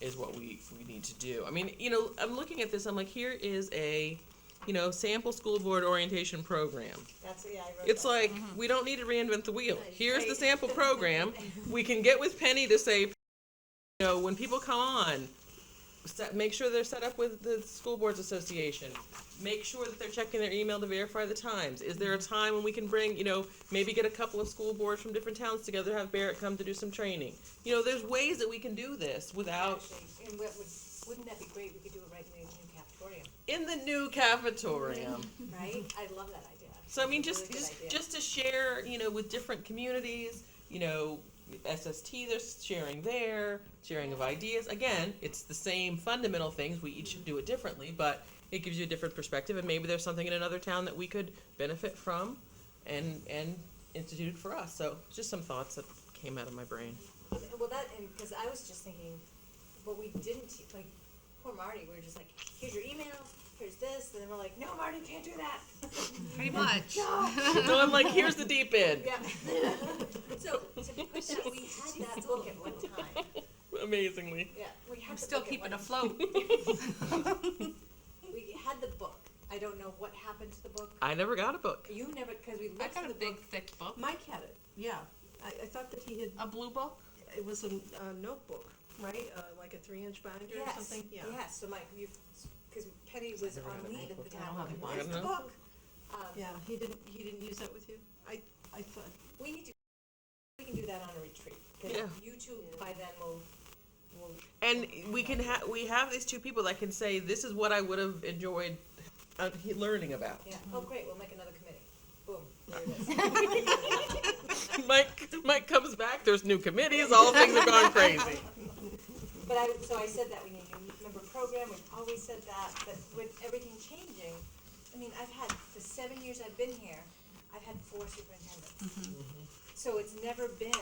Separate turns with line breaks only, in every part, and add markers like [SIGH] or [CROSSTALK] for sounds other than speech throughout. is what we we need to do. I mean, you know, I'm looking at this. I'm like, here is a, you know, sample school board orientation program.
That's, yeah, I wrote
It's
that.
like we don't need to reinvent the wheel.
Mm-hmm. Right.
Here's the
Right. [LAUGHS]
sample program. We can get with Penny to say, you know, when people come on, set, make sure they're set up with the school boards association. Make sure that they're checking their email to verify the times. Is there a time when we can bring, you know, maybe get a couple of school boards from different towns together, have Barrett come to do some training. You know, there's ways that we can do this without
Actually, Oh, And what would, wouldn't that be great, we could do it right in the new cafeteria,
in the new cafeteria.
right? I love that idea.
So I mean,
It's Mm-hmm.
just
a really good
just
idea.
just to share, you know, with different communities, you know, SST they're sharing there, sharing of ideas. Again, it's the same fundamental things. We each do it differently, but it gives you a different perspective, and maybe there's something in another town that we could benefit from, and and institute for us. So just some thoughts that came out of my
[LAUGHS]
brain.
Well, that, and, cause I was just thinking, what we didn't, te- like, poor Marty, we were just like, here's your email, here's this, and then we're like, no, Marty, can't do that.
Pretty much.
so I'm like, here's the deep end.
Yeah. [LAUGHS] So, to push that, we had that book at one time, [LAUGHS]
Amazingly.
yeah, we had
I'm
the
still
book at one-
keeping
[LAUGHS]
afloat.
We had the book, I don't know what happened to the book,
I never got a book.
you never, cause we looked
I
at the book.
got a big, thick book.
Mike had it, yeah. I, I thought that he had,
Oh.
A blue book.
it was a uh, notebook, right? Uh, like a three-inch binder or
Yes,
something? Yeah.
Yes, so Mike, you, because Penny was
never
on
got a
leave at the
notebook.
I
time,
don't have a
like, where's the
binder.
book? Um,
Yeah, he didn't, he didn't use that with you? I, I thought,
we need to, we can do that on a retreat,
Yeah.
because you two by then will, will,
and we can have we have these two people that can say this is what I would have enjoyed uh, he- learning about.
yeah,
Mm-hmm.
oh, great, we'll make another committee, boom, there it is.
[LAUGHS] Mike Mike comes back. There's new committees. All things have gone crazy.
But I, so I said that we need a new member program, we've always said that, but with everything changing, I mean, I've had, the seven years I've been here, I've had four superintendents.
Mm-hmm.
Mm-hmm.
So it's never been,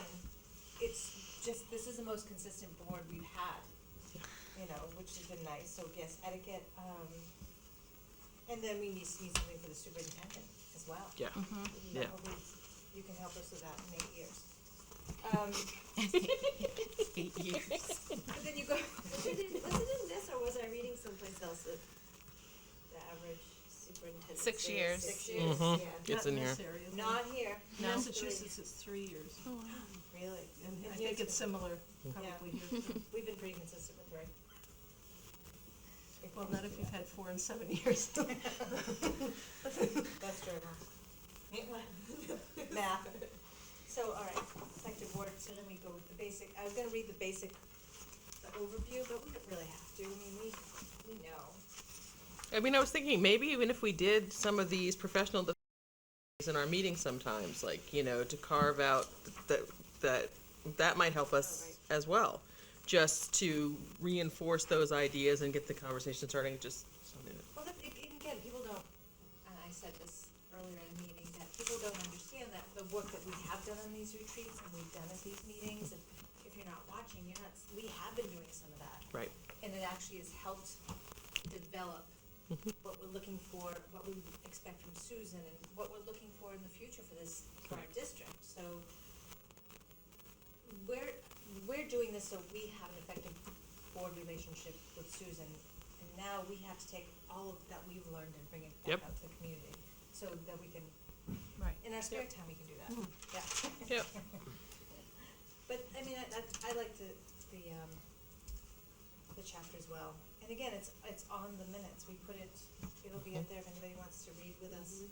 it's just, this is the most consistent board we've had, you know, which has been nice, so yes, etiquette, um, and then we need, need something for the superintendent as well.
Yeah.
Mm-hmm.
You know,
Yeah.
hopefully You can help us with that in eight years. Um,
[LAUGHS] Eight years.
but then you go, was it in, was it in this or was I reading someplace else that the average superintendent?
Six
stays
years.
Six years,
Mhm.
yeah.
It's
not
in here.
this area.
Not here,
In
No.
Massachusetts, it's three years,
really.
and I
Yeah,
think it's
been-
similar probably
[LAUGHS]
here.
We've been pretty consistent with three.
Well, not if you've had four and seven years.
[LAUGHS] That's true. enough. Math. So, all right, effective work, so then we go with the basic, I was gonna read the basic, the overview, but we don't really have to, I mean, we, we know.
I mean, I was thinking maybe even if we did some of these professional developments in our meetings sometimes, like you know, to carve out that that that might help us as well, just to reinforce those ideas and get the conversation starting. Just something that
Well, that, it- and again, people don't, and I said this earlier in the meeting, that people don't understand that the work that we have done on these retreats and we've done at these meetings, if, if you're not watching, you're not, s- we have been doing some of that.
right.
And it actually has helped develop
Mm-hmm.
what we're looking for, what we expect from Susan, and what we're looking for in the future for this, for our
Correct.
district, so. We're, we're doing this so we have an effective board relationship with Susan, and now we have to take all of that we've learned and bring it
Yep.
back out to the community, so that we can,
Right.
in our spare time, we can do that, yeah.
Yep.
[LAUGHS] But, I mean, I, that's- I like the, the, um, the chapter as well. And again, it's, it's on the minutes, we put it, it'll be up there if anybody wants to read with us.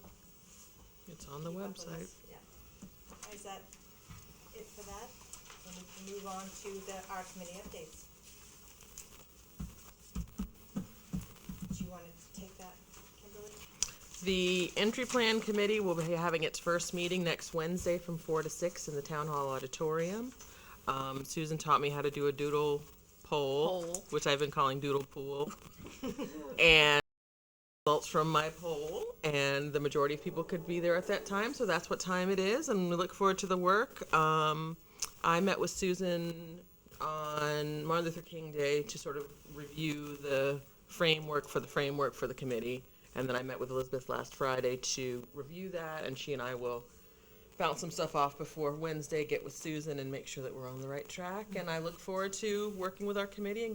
It's on the
keep up with
website.
us. Yeah. Is that it for that? And we can move on to the, our committee updates. Do you wanna take that, Kimberly?
The entry plan committee will be having its first meeting next Wednesday from four to six in the town hall auditorium. Um, Susan taught me how to do a doodle poll,
Poll.
which I've been calling doodle pool. [LAUGHS] And results from my poll, and the majority of people could be there at that time, so that's what time it is, and we look forward to the work. Um, I met with Susan on Martin Luther King Day to sort of review the framework for the framework for the committee, and then I met with Elizabeth last Friday to review that, and she and I will bounce some stuff off before Wednesday, get with Susan and make sure that we're on the right track, and I look forward to working with our committee and